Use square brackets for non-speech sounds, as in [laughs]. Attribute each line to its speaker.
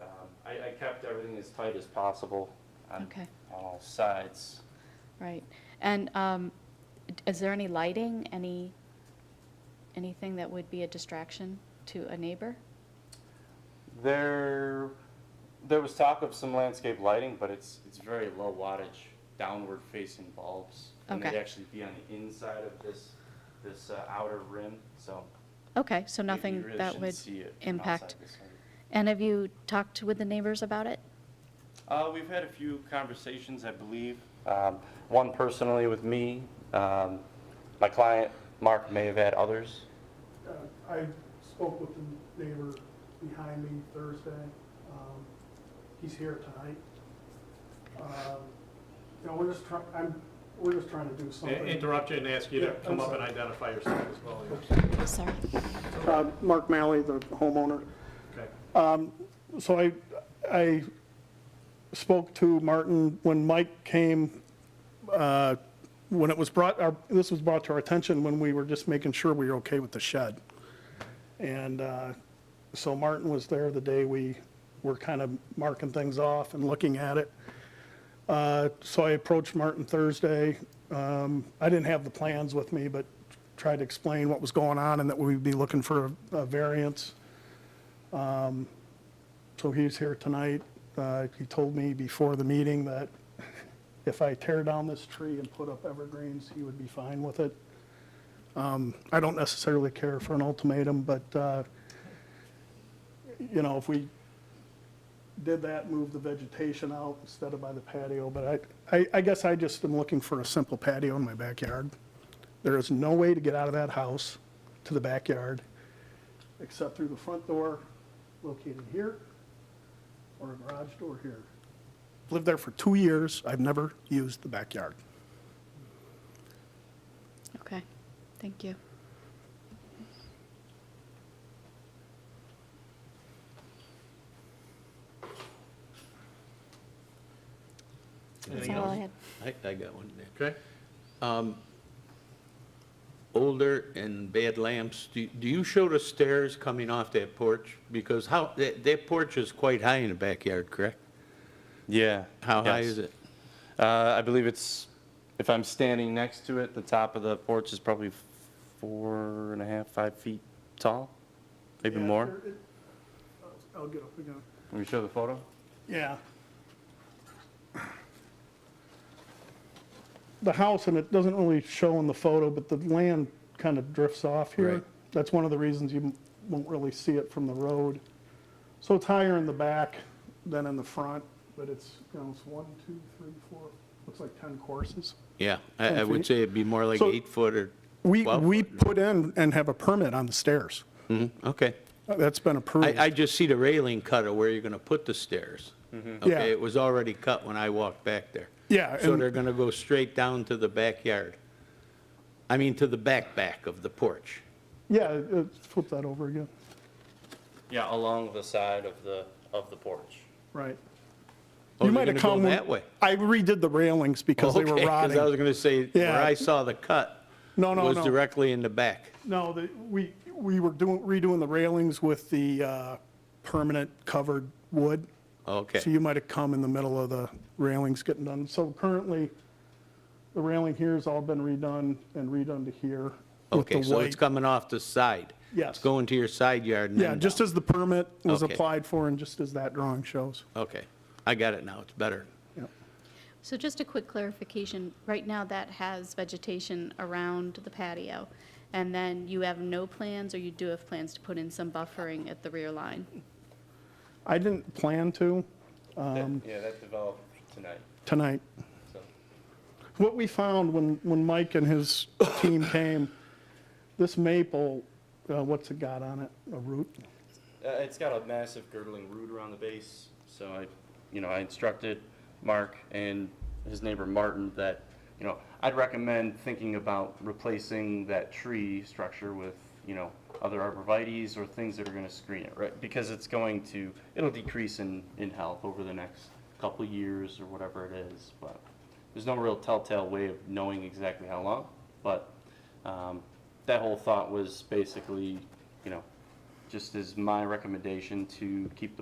Speaker 1: um, kept everything as tight as possible on,
Speaker 2: Okay.
Speaker 1: on all sides.
Speaker 2: Right. And um, d- is there any lighting, any, anything that would be a distraction to a neighbor?
Speaker 1: There, there was talk of some landscape lighting, but it's, it's very low wattage, downward facing bulbs. And they'd
Speaker 2: Okay.
Speaker 1: actually be on the inside of this, this uh, outer rim, so.
Speaker 2: Okay, so
Speaker 1: you- you
Speaker 2: nothing
Speaker 1: really
Speaker 2: that
Speaker 1: shouldn't
Speaker 2: would
Speaker 1: see it from
Speaker 2: impact.
Speaker 1: outside this area.
Speaker 2: And have you talked with the neighbors about it?
Speaker 1: Uh, we've had a few conversations, I believe. Um, one personally with me, um, my client, Mark, may have had others.
Speaker 3: Uh, I spoke with the neighbor behind me Thursday. Um, He's here tonight. Um, You know, we're just trying, I'm, we're just trying to do
Speaker 4: I-
Speaker 3: something.
Speaker 4: Interrupt you and ask you to
Speaker 3: Yeah, I'm
Speaker 4: come up
Speaker 3: sorry.
Speaker 4: and identify yourself as well, yeah.
Speaker 2: Sorry.
Speaker 3: Uh, Mark Malley, the homeowner.
Speaker 4: Okay.
Speaker 3: So I, I spoke to Martin when Mike came, uh, when it was brought, our- this was brought to our attention when we were just making sure we were okay with the shed. And uh, so Martin was there the day we were kind of marking things off and looking at it. Uh, So I approached Martin Thursday. Um, I didn't have the plans with me, but tried to explain what was going on and that we'd be looking for a a variance. So he's here tonight. Uh, He told me before the meeting that [laughs] if I tear down this tree and put up evergreens, he would be fine with it. Um, I don't necessarily care for an ultimatum, but, uh, you know, if we did that, move the vegetation out instead of by the patio, but I, I- I guess I just am looking for a simple patio in my backyard. There is no way to get out of that house to the backyard except through the front door located here or a garage door here. Lived there for two years. I've never used the backyard.
Speaker 2: Okay, thank you. That's
Speaker 4: Anything
Speaker 2: all I
Speaker 4: else?
Speaker 2: had.
Speaker 5: I, I got one there. Um,
Speaker 4: Okay,
Speaker 5: Older and bad lamps, do, do you show the stairs coming off that porch? Because how, that, that porch is quite high in the backyard, correct?
Speaker 1: Yeah.
Speaker 5: How high
Speaker 1: yes.
Speaker 5: is it?
Speaker 1: Uh, I believe it's, if I'm standing next to it, the top of the porch is probably four and a half, five feet tall, maybe more.
Speaker 3: I'll get up again.
Speaker 1: Let me show the photo.
Speaker 3: Yeah. The house, and it doesn't really show in the photo, but the land kind of drifts off here.
Speaker 5: Right.
Speaker 3: That's one of the reasons you won't really see it from the road. So it's higher in the back than in the front, but it's, you know, it's one, two, three, four, looks like 10 courses.
Speaker 5: Yeah, I, I
Speaker 3: Ten feet.
Speaker 5: would say it'd be more like
Speaker 3: So-
Speaker 5: eight foot or
Speaker 3: We,
Speaker 5: twelve
Speaker 3: we
Speaker 5: foot.
Speaker 3: put in and have a permit on the stairs. Uh,
Speaker 5: Mhm, Okay.
Speaker 3: That's been
Speaker 5: I,
Speaker 3: approved.
Speaker 5: I just see the railing cut of where you're gonna put the stairs.
Speaker 3: Mm-hmm. Yeah.
Speaker 5: Okay, it was already cut when I walked back there.
Speaker 3: Yeah,
Speaker 5: So
Speaker 3: and-
Speaker 5: they're gonna go straight down to the backyard. I mean, to the back back of the porch.
Speaker 3: Yeah, uh, flip that over again.
Speaker 1: Yeah, along the side of the, of the porch.
Speaker 3: Right.
Speaker 5: Oh,
Speaker 3: You
Speaker 5: they're
Speaker 3: might have
Speaker 5: gonna go
Speaker 3: come when-
Speaker 5: that way.
Speaker 3: I redid the railings because they were
Speaker 5: Okay, 'cause I was
Speaker 3: rotting.
Speaker 5: going to say,
Speaker 3: Yeah.
Speaker 5: where I saw the cut
Speaker 3: No, no,
Speaker 5: was
Speaker 3: no.
Speaker 5: directly in the back.
Speaker 3: No, the- we, we were doing, redoing the railings with the uh, permanent covered wood. So
Speaker 5: Okay,
Speaker 3: you might have come in the middle of the railings getting done. So currently, the railing here has all been redone and redone to here with the
Speaker 5: okay, so
Speaker 3: white.
Speaker 5: it's coming off the side.
Speaker 3: Yes.
Speaker 5: It's going to your side yard and
Speaker 3: Yeah,
Speaker 5: then
Speaker 3: just
Speaker 5: down.
Speaker 3: as the permit was
Speaker 5: Okay.
Speaker 3: applied for and just as that drawing shows.
Speaker 5: Okay, I got it now, it's better.
Speaker 3: Yep.
Speaker 2: So just a quick clarification, right now that has vegetation around the patio, and then you have no plans, or you do have plans to put in some buffering at the rear line?
Speaker 3: I didn't plan to
Speaker 1: Yeah, that developed tonight,
Speaker 3: tonight.
Speaker 1: so.
Speaker 3: What we found when, when Mike and his team came, this maple, uh, what's it got on it? A root?
Speaker 1: Uh, it's got a massive girdling root around the base, so I, you know, I instructed Mark and his neighbor Martin that, you know, I'd recommend thinking about replacing that tree structure with, you know, other arborvitae's or things that are gonna screen it, right? Because it's going to, it'll decrease in, in health over the next couple years or whatever it is, but there's no real telltale way of knowing exactly how long, but, um, that whole thought was basically, you know, just as my recommendation to keep the